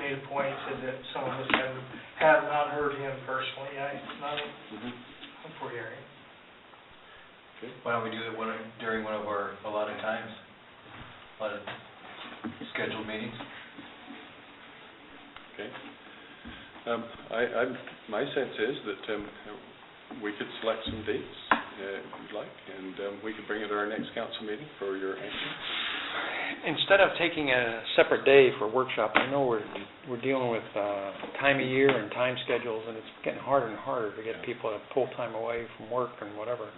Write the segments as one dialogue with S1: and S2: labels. S1: made a point, he said that some of us had, have not heard him personally, I, not
S2: Mm-hmm.
S1: for hearing.
S3: Why don't we do it one, during one of our allotted times? A lot of scheduled meetings?
S2: Okay. Um, I, I'm, my sense is that, um, we could select some dates, uh, if you'd like, and, um, we could bring it to our next council meeting for your action.
S4: Instead of taking a separate day for workshop, I know we're, we're dealing with uh, time of year and time schedules, and it's getting harder and harder to get people to pull time away from work and whatever.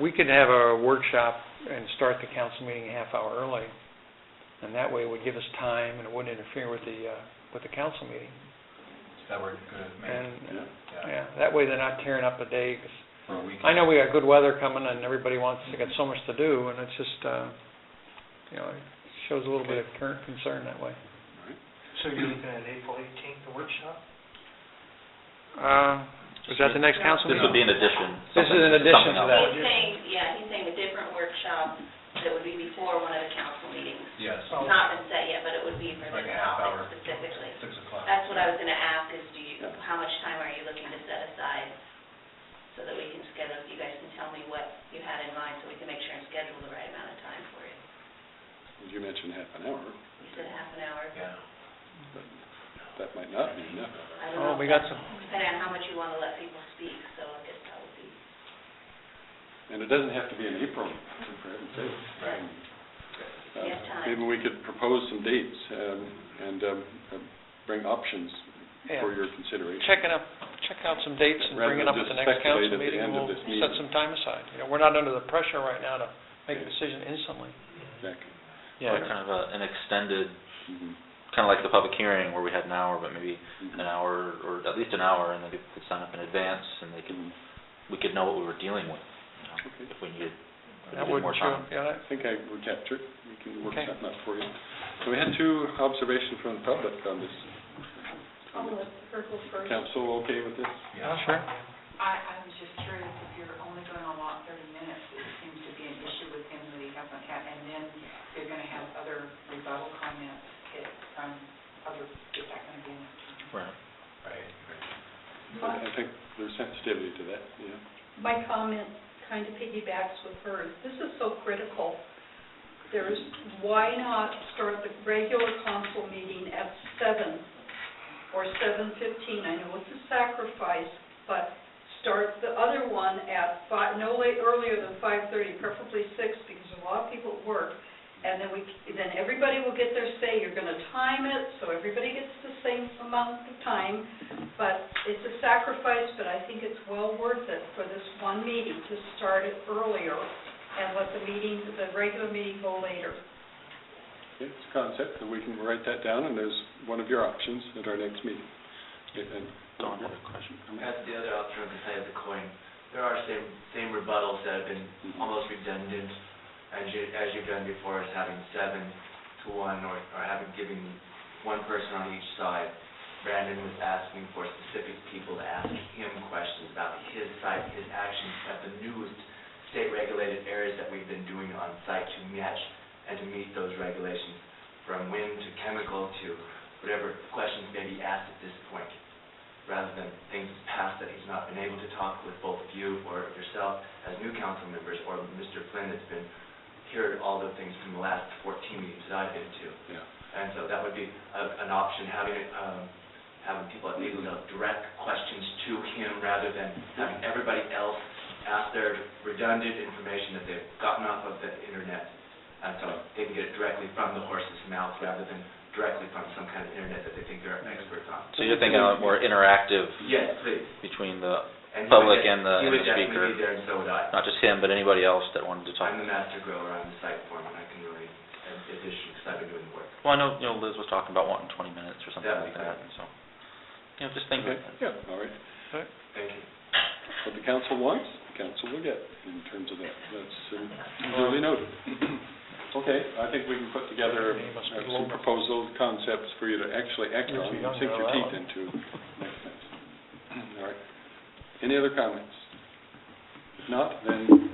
S4: We could have a workshop and start the council meeting a half hour early, and that way it would give us time, and it wouldn't interfere with the, uh, with the council meeting.
S3: Is that where it could make,
S4: And, uh,
S3: yeah,
S4: yeah, that way they're not tearing up a day, 'cause
S3: for a weekend?
S4: I know we got good weather coming and everybody wants, they got so much to do and it's just, uh, you know, it shows a little bit of current concern that way.
S1: So you're looking at April eighteenth, the workshop?
S4: Uh, is that the next council
S5: This would
S4: meeting?
S5: be an addition.
S4: This is an
S5: something-
S4: addition to
S5: something else.
S4: that.
S1: Yeah.
S6: He's saying, yeah, he's saying a different workshop that would be before one of the council meetings.
S3: Yes,
S1: Oh.
S6: It's Not been set yet, but it would be for
S3: like
S6: this
S3: a half hour,
S6: topic specifically.
S3: six o'clock.
S6: That's what I was gonna ask, is do you,
S2: Yeah.
S6: how much time are you looking to set aside so that we can schedule, you guys can tell me what you had in mind, so we can make sure and schedule the right amount of time for you.
S2: You mentioned half an hour,
S6: You said half an hour.
S3: Yeah.
S2: but that might not be enough.
S6: I don't
S4: Oh,
S6: know.
S4: we
S6: if
S4: got
S6: that's-
S4: some,
S6: Depending on how much you wanna let people speak, so I guess that would be,
S2: And it doesn't have to be in April, for heaven's sake.
S6: Right.
S2: Uh,
S6: We have time.
S2: Maybe we could propose some dates, um, and, um, uh, bring options
S4: yeah,
S2: for your consideration.
S4: check it up, check out some dates and bring it up at the next
S2: Rather
S4: council
S2: than just speculate at the
S4: meeting.
S2: end
S4: and
S2: of
S4: We'll
S2: this
S4: set
S2: meeting.
S4: some time aside. You know, we're not under the pressure right now to make a
S2: Yeah.
S4: decision instantly.
S2: Exactly.
S5: Yeah, kind of a- an extended,
S2: Mhm.
S5: kind of like the public hearing where we had an hour, but maybe an
S2: Mhm.
S4: Uh,
S5: hour, or at least an hour, and then people could sign up in advance, and they could,
S2: Mhm.
S5: we could know what we were dealing with, you know,
S2: Okay.
S5: if we needed if we
S4: That
S5: needed
S4: wouldn't
S5: more
S4: show,
S5: time.
S4: yeah, that-
S2: I think I would capture it. We can work
S4: Okay.
S2: something out for you. So we had two observations from the public on this. Um,
S7: Oh, let's circle first.
S2: Council okay with this?
S3: Yeah.
S4: sure.
S7: I, I was just curious if you're only going to allow thirty minutes, it seems to be an issue with him that he hasn't had, and then they're going to have other rebuttal comments eh, from other, is that going to be enough?
S5: Right.
S3: Right.
S2: I I think there's sensitivity to that, yeah.
S8: my comment kind of piggybacks with hers. This is so critical. There's, why not start the regular council meeting at seven or seven fifteen? I know it's a sacrifice, but start the other one at five, no late, earlier than five thirty, preferably six, because a lot of people work. And then we, then everybody will get their say. You're gonna time it, so everybody gets the same amount of time. But it's a sacrifice, but I think it's well worth it for this one meeting to start it earlier and let the meeting, the regular meeting go later.
S2: It's a concept, and we can write that down, and there's one of your options at our next meeting. And-
S5: Don had a question.
S9: That's the other option on the side of the coin. There are same, same rebuttals that have been almost redundant as you, as you've done before, as having seven to one or, or having, giving one person on each side. Brandon was asking for specific people to ask him questions about his site, his actions at the newest state regulated areas that we've been doing on site to match and to meet those regulations, from wind to chemical to whatever questions may be asked at this point rather than things past that he's not been able to talk with both of you or yourself as new council members, or Mr. Flynn that's been, heard all the things from the last 14 meetings that I've been to.
S2: Yeah.
S9: And so that would be a- an option, having, it, um, having people at legal know direct questions to him rather than having everybody else ask their redundant information that they've gotten off of the internet. And so they can get it directly from the horse's mouth rather than directly from some kind of internet that they think they're experts on.
S5: So you're thinking of a more interactive
S9: Yes, please.
S5: between the,
S9: And he would
S5: Public
S9: def-
S5: and the- and the
S9: He would definitely
S5: speaker.
S9: be there, and so would I.
S5: not just him, but anybody else that wanted to talk.
S9: I'm the master grower on the site form, and I can really add addition, because I've been doing the work.
S5: Well, I know, you know, Liz was talking about wanting 20 minutes or something
S9: Yeah,
S5: like that, and so, you know, just think
S2: Okay,
S5: of it.
S2: yeah, all right.
S9: Thank you.
S2: What the council wants, the council will get in terms of that. That's um, duly noted. Okay, I think we can put together
S4: You must be
S2: uh, some
S4: local.
S2: proposal concepts for you to actually act
S4: Yes,
S2: on
S4: we
S2: and
S4: don't
S2: sink
S4: know
S2: your
S4: that
S2: teeth
S4: one.
S2: into next time. All right. Any other comments? If not, then